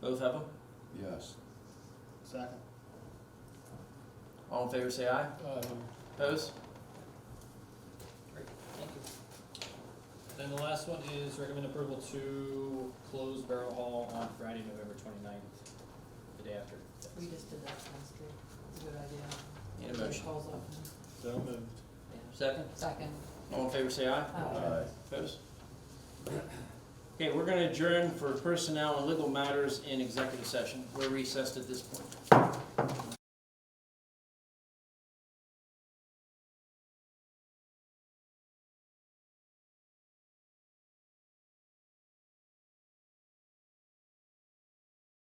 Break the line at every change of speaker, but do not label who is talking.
Both of them?
Yes.
Second.
All in favor, say aye. Opposed?
Thank you. Then the last one is recommend approval to close Barrel Hall on Friday, November twenty-ninth, the day after.
We just did that last week, it's a good idea.
Need a motion.
Calls up.
So moved.
Second?
Second.
All in favor, say
Uh,
aye.
Aye.
Opposed? Okay, we're gonna adjourn for personnel and legal matters in executive session. We're recessed at this point.